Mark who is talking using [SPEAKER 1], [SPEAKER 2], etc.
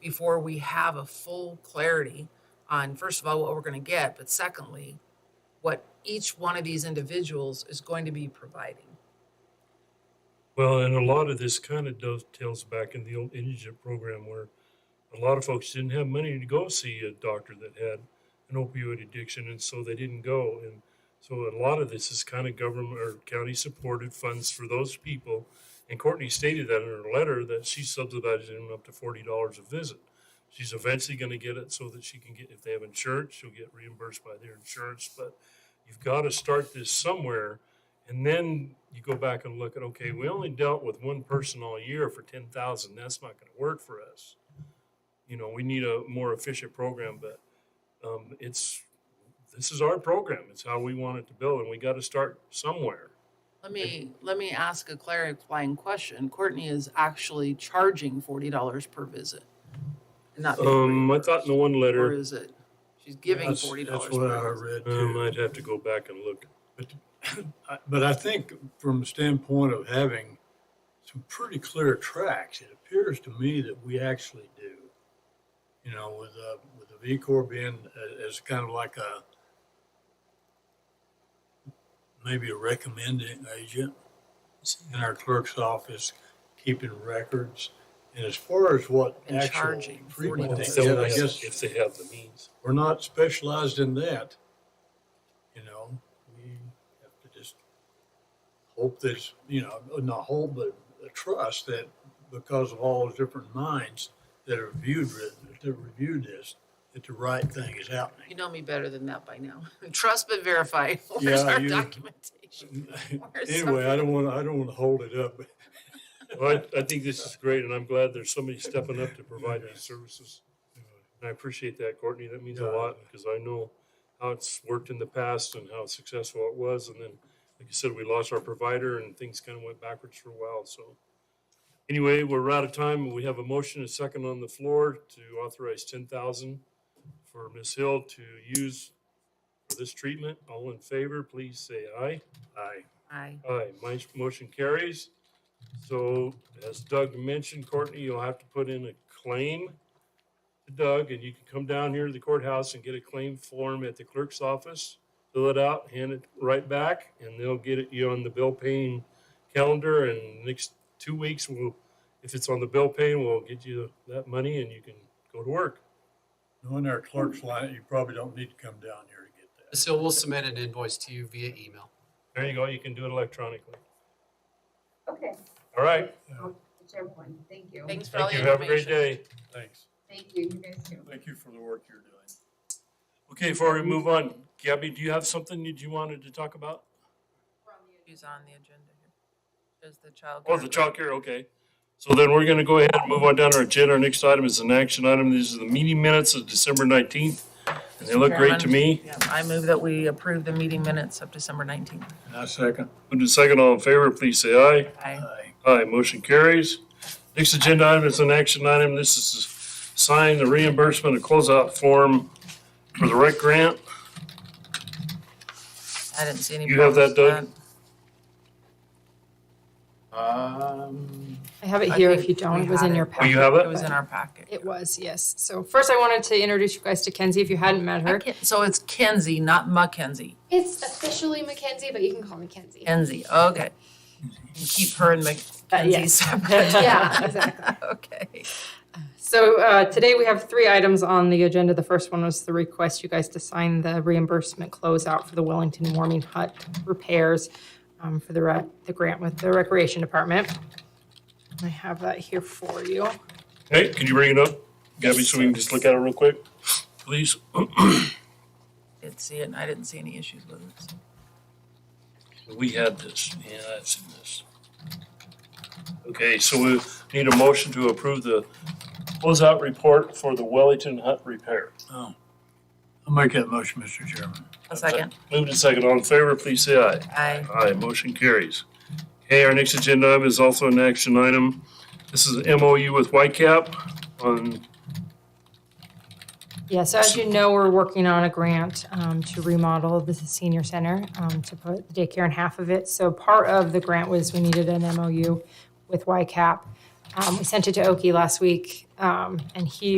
[SPEAKER 1] before we have a full clarity on, first of all, what we're going to get, but secondly, what each one of these individuals is going to be providing.
[SPEAKER 2] Well, and a lot of this kind of dovetails back in the old indigent program where a lot of folks didn't have money to go see a doctor that had an opioid addiction, and so they didn't go. And so a lot of this is kind of government or county supported funds for those people. And Courtney stated that in her letter that she subsidizes them up to forty dollars a visit. She's eventually going to get it so that she can get if they have insurance, she'll get reimbursed by their insurance. But you've got to start this somewhere. And then you go back and look at, okay, we only dealt with one person all year for ten thousand. That's not going to work for us. You know, we need a more efficient program, but um, it's this is our program. It's how we want it to build, and we got to start somewhere.
[SPEAKER 1] Let me, let me ask a clarifying question. Courtney is actually charging forty dollars per visit. and not being
[SPEAKER 2] Um, I
[SPEAKER 1] reimbursed.
[SPEAKER 2] thought in the one
[SPEAKER 1] Or
[SPEAKER 2] letter,
[SPEAKER 1] is it, she's giving
[SPEAKER 3] That's-
[SPEAKER 1] forty dollars
[SPEAKER 3] That's what I
[SPEAKER 1] per visit?
[SPEAKER 3] read
[SPEAKER 2] um,
[SPEAKER 3] too.
[SPEAKER 2] I'd have to go back and look.
[SPEAKER 3] I- But I think from the standpoint of having some pretty clear tracks, it appears to me that we actually do. You know, with, uh, with the V Corp being a- as kind of like a, maybe a recommending agent in our clerk's office, keeping records. And as far as what
[SPEAKER 1] And
[SPEAKER 3] actual
[SPEAKER 1] charging
[SPEAKER 3] treatment
[SPEAKER 1] $40.
[SPEAKER 3] they get, I guess.
[SPEAKER 2] if they have the means.
[SPEAKER 3] we're not specialized in that. You know, we have to just hope that, you know, not hope, but trust that because of all those different minds that have reviewed, it- that reviewed this, that the right thing is
[SPEAKER 1] You
[SPEAKER 3] happening.
[SPEAKER 1] know me better than that by now. Trust but verify. Where's
[SPEAKER 3] Yeah,
[SPEAKER 1] our
[SPEAKER 3] you-
[SPEAKER 1] documentation? Where's
[SPEAKER 3] Anyway, I don't want, I don't want to hold it up.
[SPEAKER 2] Well, I, I think this is great, and I'm glad there's somebody stepping up to provide these services. And I appreciate that, Courtney. That means a
[SPEAKER 3] Yeah.
[SPEAKER 2] lot because I know how it's worked in the past and how successful it was. And then, like you said, we lost our provider and things kind of went backwards for a while. So, anyway, we're out of time. We have a motion, a second on the floor to authorize ten thousand for Ms. Hill to use for this treatment. All in favor, please say aye.
[SPEAKER 3] Aye.
[SPEAKER 1] Aye.
[SPEAKER 2] Aye, my motion carries. So as Doug mentioned, Courtney, you'll have to put in a claim to Doug and you can come down here to the courthouse and get a claim form at the clerk's office. Fill it out, hand it right back and they'll get it you on the bill paying calendar and next two weeks we'll, if it's on the bill paying, we'll get you that money and you can go to work.
[SPEAKER 3] Knowing our clerk's line, you probably don't need to come down here to get that.
[SPEAKER 4] So we'll submit an invoice to you via email.
[SPEAKER 2] There you go, you can do it electronically.
[SPEAKER 5] Okay,
[SPEAKER 2] All right,
[SPEAKER 5] whichever one, thank you.
[SPEAKER 1] Thanks for all
[SPEAKER 2] thank
[SPEAKER 1] the
[SPEAKER 2] you,
[SPEAKER 1] information.
[SPEAKER 2] have a great day.
[SPEAKER 3] Thanks.
[SPEAKER 5] Thank you, you guys too.
[SPEAKER 3] Thank you for the work you're doing.
[SPEAKER 2] Okay, before we move on, Gabby, do you have something that you wanted to talk about?
[SPEAKER 1] She's on the agenda here. Is the child.
[SPEAKER 2] Oh, the childcare, okay. So then we're gonna go ahead and move on down our agenda. Our next item is an action item. These are the meeting minutes of December nineteenth. And they look great to me.
[SPEAKER 1] Yeah, I move that we approve the meeting minutes of December nineteenth.
[SPEAKER 3] I second.
[SPEAKER 2] Move to second, all in favor, please say aye.
[SPEAKER 1] Aye.
[SPEAKER 3] Aye.
[SPEAKER 2] Aye, motion carries. Next agenda item is an action item. This is to sign the reimbursement of closeout form for the rec grant.
[SPEAKER 1] I didn't see any.
[SPEAKER 2] You have that,
[SPEAKER 1] problems with
[SPEAKER 3] Um.
[SPEAKER 6] I have it
[SPEAKER 1] I
[SPEAKER 6] here if
[SPEAKER 1] think
[SPEAKER 6] you don't.
[SPEAKER 1] we
[SPEAKER 6] It was
[SPEAKER 1] had
[SPEAKER 6] in
[SPEAKER 1] it.
[SPEAKER 6] your
[SPEAKER 2] Oh,
[SPEAKER 6] packet.
[SPEAKER 2] you have
[SPEAKER 1] that.
[SPEAKER 2] it?
[SPEAKER 1] It was in our packet.
[SPEAKER 6] It was, yes. So first I wanted to introduce you guys to Kenzie if you hadn't met her.
[SPEAKER 1] So it's Kenzie, not Mackenzie.
[SPEAKER 7] It's officially Mackenzie, but you can call me Kenzie.
[SPEAKER 1] Kenzie, okay. And Keep her and
[SPEAKER 6] Uh,
[SPEAKER 1] Mackenzie
[SPEAKER 6] yes.
[SPEAKER 1] separate.
[SPEAKER 6] Yeah, exactly.
[SPEAKER 1] Okay.
[SPEAKER 6] So uh, today we have three items on the agenda. The first one was the request you guys to sign the reimbursement closeout for the Wellington Warming Hut repairs um, for the rec, the grant with the Recreation Department. I have that here for you.
[SPEAKER 2] Hey, can you bring it up, Gabby, so we can just look at it real quick, please?
[SPEAKER 1] Didn't see it and I didn't see any issues with it. so.
[SPEAKER 2] We had this, yeah, I've seen this. Okay, so we need a motion to approve the closeout report for the Wellington Hut repair.
[SPEAKER 3] Oh, I'll make that motion, Mr. Chairman.
[SPEAKER 1] A second.
[SPEAKER 2] Moved and second, all in favor, please say aye.
[SPEAKER 1] Aye.
[SPEAKER 2] Aye, motion carries. Okay, our next agenda item is also an action item. This is MOU with Whitecap on,
[SPEAKER 6] Yeah, so as you know, we're working on a grant um, to remodel the senior center, um, to put the daycare in half of it. So part of the grant was we needed an MOU with YCAP. Um, We sent it to Oki last week, um, and he